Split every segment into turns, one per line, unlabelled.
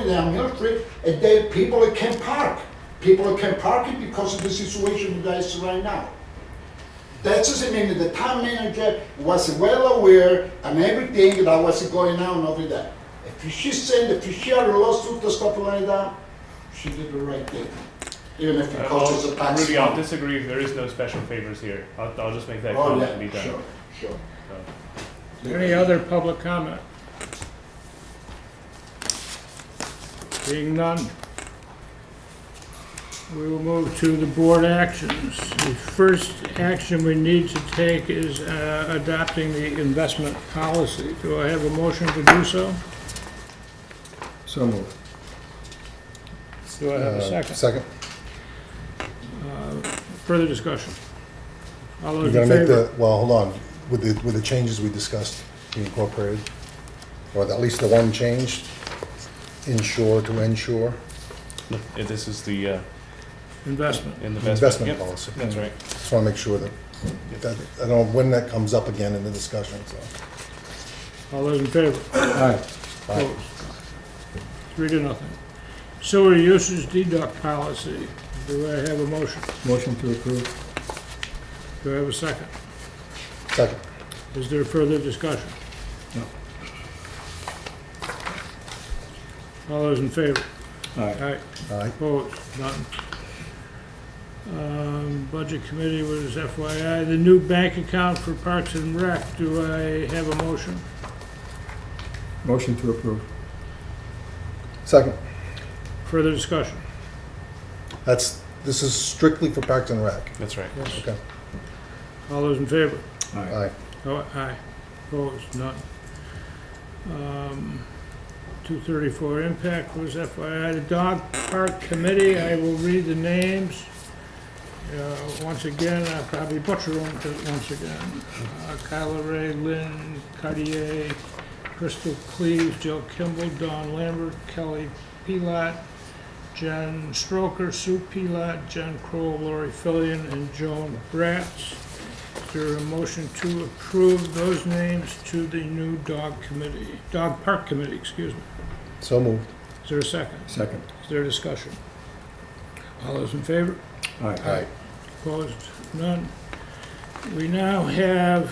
it down Hill Street, and they, people that can park. People that can park it because of the situation you guys see right now. That doesn't mean that the town manager was well aware and everything that was going on over there. If she sent, if she had a lawsuit or stuff like that, she did the right thing, even if it costs a tax.
Ruby, Uh, I'll disagree. There is no special favors here. I'll, I'll just make that
Oh,
comment to be
yeah,
done.
sure, sure.
So.
Any other public comment? Being none. We will move to the board actions. The first action we need to take is uh, adopting the investment policy. Do I have a motion to do so?
So moved. Uh,
Do I have a second?
Second.
Further discussion? All
You're
those
gonna
in
make
favor?
the, well, hold on, with the, with the changes we discussed, you incorporated, or at least the one change, insure to insure,
Yeah, this is the uh,
Investment.
in the best
investment
Yep,
policy.
That's right.
Just wanna make sure that, that, I don't know when that comes up again in the discussion, so.
All those in favor?
Aye.
Opposed? Three to nothing. Sewer usage deduct policy. Do I have a motion?
Motion to approve.
Do I have a second?
Second.
Is there further discussion?
No.
All those in favor?
Aye.
Aye.
Aye.
Opposed? None. Um, Budget Committee was FYI. The new bank account for Parks and Rec, do I have a motion?
Motion to approve. Second.
Further discussion?
That's, this is strictly for Parks and Rec.
That's right.
Yes.
Okay.
All those in favor?
Aye.
Oh, aye. Opposed, none. Um, 234 impact was FYI. The dog park committee, I will read the names. Uh, Once again, I probably butcher them, but once again. Uh, Kyla Ray, Lynn Cartier, Crystal Cleves, Jill Kimball, Don Lambert, Kelly Pilat, Jen Stroker, Sue Pilat, Jen Kroll, Lori Fillion, and Joan Bratz. Is there a motion to approve those names to the new dog committee, dog park committee, excuse me?
So moved.
Is there a second?
Second.
Is there a discussion? All those in favor?
Aye.
Opposed? None. We now have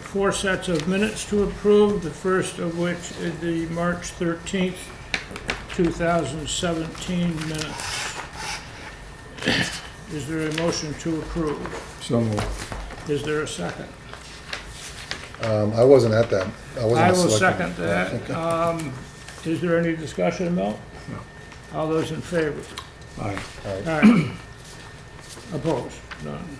four sets of minutes to approve, the first of which is the March 13th, 2017 minutes. Is there a motion to approve?
So moved.
Is there a second?
Um, I wasn't at that. I wasn't.
I
a
will
selectman.
second that.
Okay.
Um, Is there any discussion, Mel?
No.
All those in favor?
Aye. Aye.
All right. Opposed? None.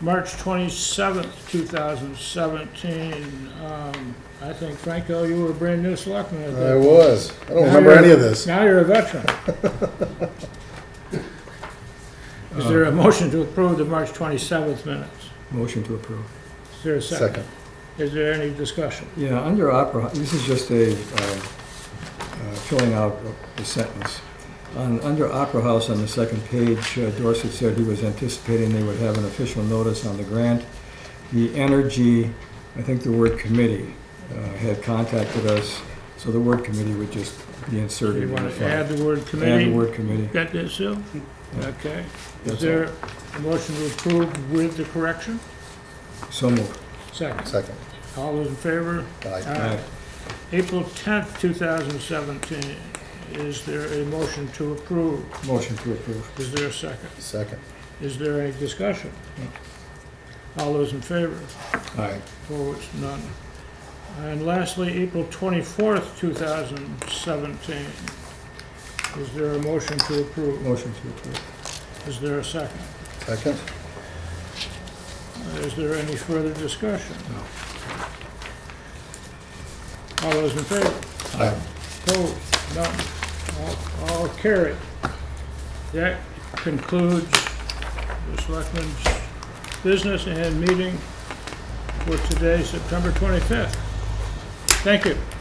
March 27th, 2017, um, I think, Franco, you were a brand-new selectman at
I
that.
was. I don't
Now
remember
you're-
any of this.
Now you're a veteran. Is there a motion to approve the March 27th minutes?
Motion to approve.
Is there a second?
Second.
Is there any discussion?
Yeah, under opera, this is just a, um, uh, filling out the sentence. On, under Opera House on the second page, uh, Dorset said he was anticipating they would have an official notice on the grant. The Energy, I think the word committee, uh, had contacted us, so the word committee would just be
Do
inserted
you
in the
want to
file.
add the word committee?
Add the word committee.
Got that, Sue? Okay. Is
That's
there a motion to approve with the correction?
So moved.
Second.
Second.
All those in favor?
Aye.
Aye. April 10th, 2017. Is there a motion to approve?
Motion to approve.
Is there a second?
Second.
Is there any discussion? All those in favor?
Aye.
Opposed? None. And lastly, April 24th, 2017. Is there a motion to approve?
Motion to approve.
Is there a second?
Second.
Is there any further discussion? All those in favor?
Aye.
Opposed? None. All- All carried. That concludes the selectmen's business and meeting for today, September 25th. Thank you.